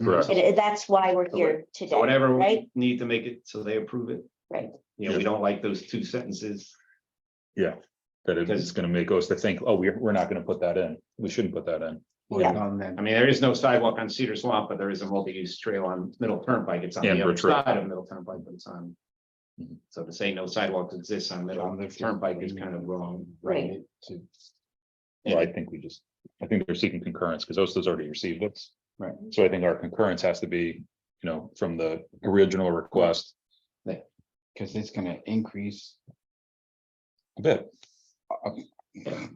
Correct. It- it- uh, that's why we're here today, Mm-hmm. So whatever right? we need to make it so they approve it. Right. You know, we don't like those two sentences. Yeah, that it Because- is gonna make us to think, oh, we're, we're not gonna put that in, we shouldn't put that in. Yeah. On that. I mean, there is no sidewalk on Cedar Swamp, but there is a multi-use trail on Middle Turnpike. It's on And the other Bridge Road. side of Middle Turnpike, but it's on. Mhm. So to say no sidewalk exists on Middle on the- Turnpike is kind of wrong. Right. To- Well, I think we just, I think they're seeking concurrence, because OSTA's already received it. Right. So I think our concurrence has to be, you know, from the original request, Cause it's gonna increase. a bit,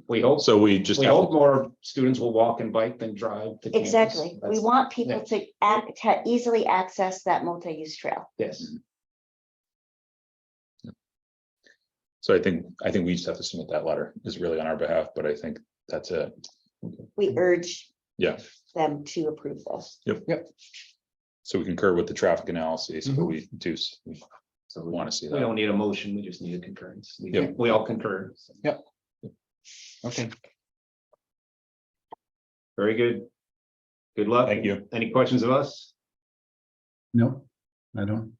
We hope, so we just. we have to- hope more students will walk and bike than drive. to campus. Exactly. We That's- want people to ac- to easily access that multi-use trail. Yes, So I think, I think we just have to submit that letter, is really on our behalf, but I think that's it. We Mm-hmm. urge Yeah. them to approve this. So we concur with the traffic analysis, but we do, s- we Mm-hmm. so we want to see we that. don't need a motion. We just need a concurrence. We Yep. we all concur. Okay, Very good. Good luck. Thank you. Any questions of us? no, I don't.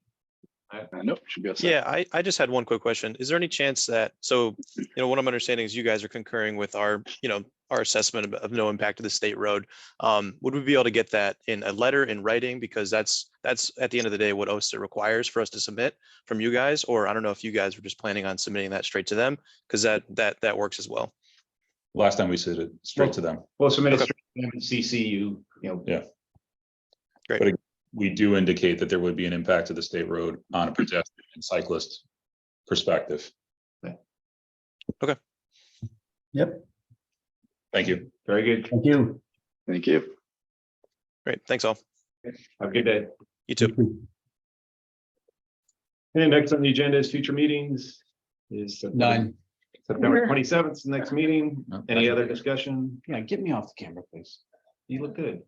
Nope, should be. Yeah, I, I just had one quick question. Is there any chance that, so, you know, what I'm understanding is you guys are concurring with our, you know, our assessment of, of no impact to the state road. Um, would we be able to get that in a letter in writing? Because that's, that's at the end of the day, what OSTA requires for us to submit from you guys, or I don't know if you guys were just planning on submitting that straight to them, because that, that, that works as well. Last time we said it straight to them. Well, submit it Okay. straight to them and CC you, you know, we do indicate that there would be an impact to the state road on a pedestrian and cyclist perspective. Okay. Yep. Thank you. very good. Thank you. Thank you. Great, thanks all. Have a good day. You too. And next on the agenda is future meetings is. September- Nine. September twenty seventh, next meeting. No, Any that's- other discussion? Yeah, get me off the camera, please. You look good.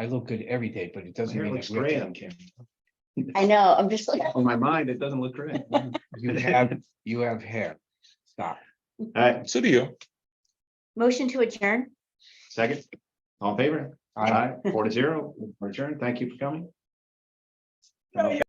I look good every day, but it doesn't Hair mean. looks that we have to- great on camera. I know, I'm just like, On my mind, it doesn't look great. All You have, you have hair. Stop. right, So do you. motion to adjourn. second. All in favor? I- Aye, Four to zero. Return. Thank you for coming.